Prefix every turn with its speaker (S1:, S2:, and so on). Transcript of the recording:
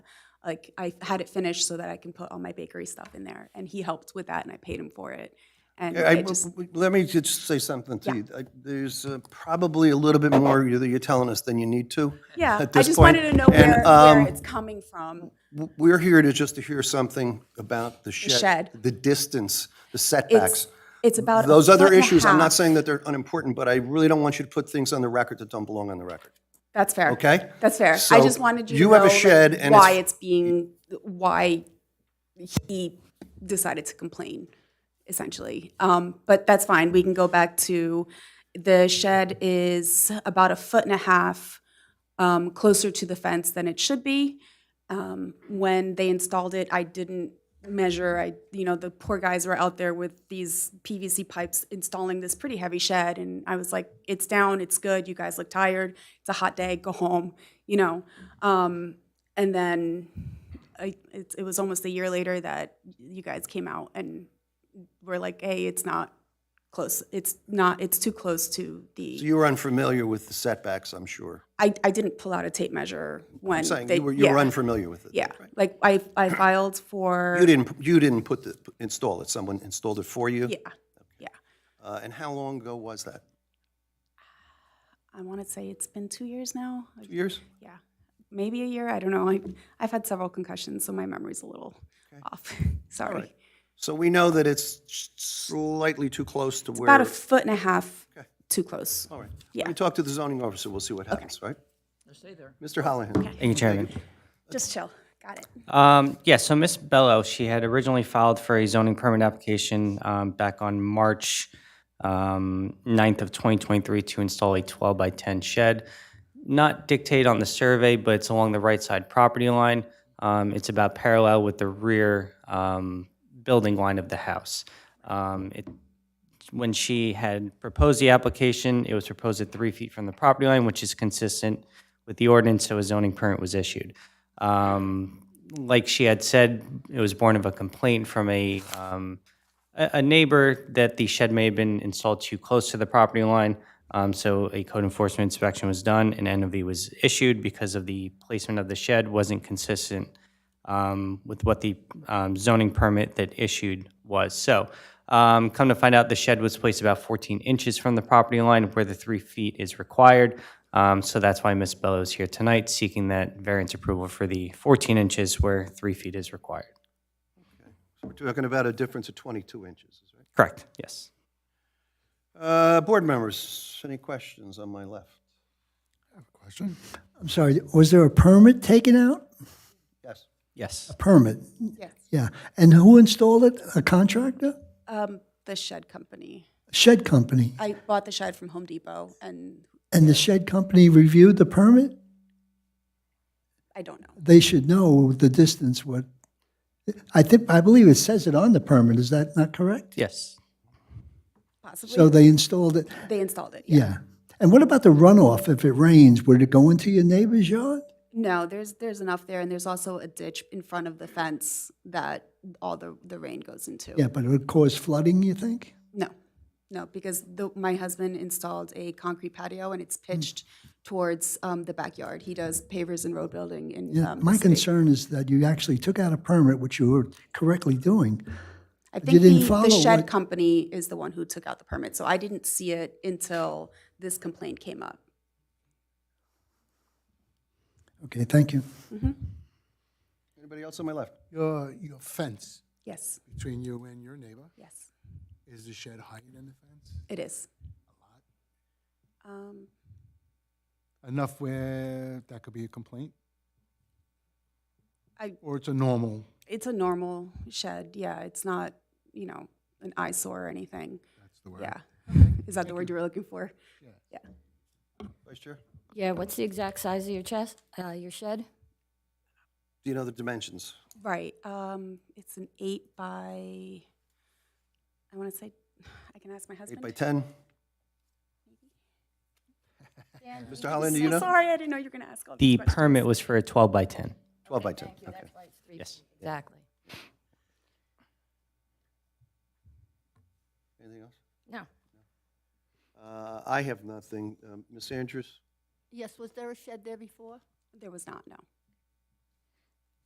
S1: like I had it finished so that I can put all my bakery stuff in there. And he helped with that and I paid him for it. And
S2: I-
S1: I
S2: w-
S1: just,
S2: w- Let me just say something to you. I- There's uh, probably a little bit more you- that you're telling us than you need to.
S1: yeah,
S2: at
S1: I
S2: this
S1: just
S2: point,
S1: wanted to know
S2: and,
S1: where,
S2: um,
S1: where it's coming from.
S2: W- We're here to just to hear something about the shed.
S1: shed.
S2: The distance, the
S1: It's,
S2: setbacks.
S1: it's about. a
S2: Those
S1: foot
S2: other
S1: and a
S2: issues, I'm
S1: half.
S2: not saying that they're unimportant, but I really don't want you to put things on the record that don't belong on the record,
S1: That's fair.
S2: okay?
S1: That's fair. I
S2: So
S1: just wanted you to
S2: you
S1: know
S2: have a
S1: like,
S2: shed and
S1: why
S2: it's-
S1: it's being, why he decided to complain, essentially. Um, But that's fine, we can go back to, the shed is about a foot and a half um, closer to the fence than it should be. Um, When they installed it, I didn't measure, I, you know, the poor guys were out there with these PVC pipes installing this pretty heavy shed, and I was like, it's down, it's good, you guys look tired, it's a hot day, go home, you know? Um, And then I, it, it was almost a year later that you guys came out and were like, hey, it's not close, it's not, it's too close to
S2: So
S1: the,
S2: you were unfamiliar with the setbacks, I'm sure.
S1: I, I didn't pull out a tape measure when
S2: I'm saying
S1: they,
S2: you were, you were
S1: yeah,
S2: unfamiliar with it.
S1: Yeah, like I, I filed for.
S2: You didn't, you didn't put the, install it, someone installed it for you?
S1: Yeah,
S2: Uh, And how long ago was that?
S1: I want to say it's been two years now, like,
S2: Two years?
S1: yeah, maybe a year, I don't know. I, I've had several concussions, so my memory's a little off, sorry.
S2: So we know that it's slightly too close to where.
S1: About a foot and a half too close.
S2: All right. Let
S1: Yeah.
S2: me talk to the zoning officer, we'll see what happens, right? Mr. Hollihan.
S3: Thank you, Chairman.
S1: Just chill, got it.
S3: Um, Yeah, so Ms. Bello, she had originally filed for a zoning permit application um, back on March um, 9th of 2023 to install a 12 by 10 shed. Not dictated on the survey, but it's along the right side property line. Um, It's about parallel with the rear um, building line of the house. Um, It when she had proposed the application, it was proposed at three feet from the property line, which is consistent with the ordinance, so a zoning permit was issued. Um, Like she had said, it was born of a complaint from a, um, a a neighbor that the shed may have been installed too close to the property line. Um, So a code enforcement inspection was done, and NOV was issued because of the placement of the shed wasn't consistent um, with what the um, zoning permit that issued was. So um, come to find out, the shed was placed about 14 inches from the property line where the three feet is required. Um, So that's why Ms. Bello is here tonight, seeking that variance approval for the 14 inches where three feet is required.
S2: We're talking about a difference of 22 inches, right?
S3: Correct, yes.
S2: Uh, Board members, any questions on my left?
S4: Question? I'm sorry, was there a permit taken out?
S2: Yes.
S3: Yes.
S4: Permit? Yes. Yeah, and who installed it? A contractor?
S1: Um, The shed company.
S4: Shed company?
S1: I bought the shed from Home Depot, and
S4: And the shed company reviewed the permit?
S1: I don't know.
S4: They should know the distance what, I think, I believe it says it on the permit, is that not correct?
S3: Yes.
S4: So
S1: Possibly,
S4: they installed it,
S1: they installed it, yeah.
S4: yeah. And what about the runoff if it rains? Would it go into your neighbor's yard?
S1: No, there's, there's enough there, and there's also a ditch in front of the fence that all the, the rain goes into.
S4: Yeah, but it would cause flooding, you think?
S1: No, no, because the, my husband installed a concrete patio, and it's
S4: Hmm.
S1: pitched towards um, the backyard. He does pavers and road building in um, the
S4: My
S1: city.
S4: concern is that you actually took out a permit, which you were correctly doing,
S1: I think
S4: didn't
S1: the, the
S4: follow
S1: shed
S4: what-
S1: company is the one who took out the permit, so I didn't see it until this complaint came up.
S4: Okay, thank you.
S2: Anybody else on my left?
S5: Your, your fence
S1: Yes,
S5: between you and your neighbor,
S1: yes,
S5: is the shed higher than the fence?
S1: it is. Um,
S5: Enough where that could be a complaint?
S1: I-
S5: Or it's a normal,
S1: It's a normal shed, yeah, it's not, you know, an eyesore or anything,
S5: that's the word.
S1: yeah. Is that the word you were looking for?
S2: Vice Chair?
S6: Yeah, what's the exact size of your chest, uh, your shed?
S2: Do you know the dimensions?
S1: Right. Um, it's an eight by, I want to say, I can ask my husband.
S2: Eight by 10? Mr. Hollihan, do you
S1: I'm
S2: know?
S1: sorry, I didn't know you were going to ask all these
S3: The
S1: questions.
S3: permit was for a 12 by 10.
S2: 12 by 10, okay.
S3: Yes.
S6: Exactly.
S2: Anything else?
S6: No.
S2: Uh, I have nothing. Um, Ms. Andrews?
S7: Yes, was there a shed there before?
S1: There was not, no.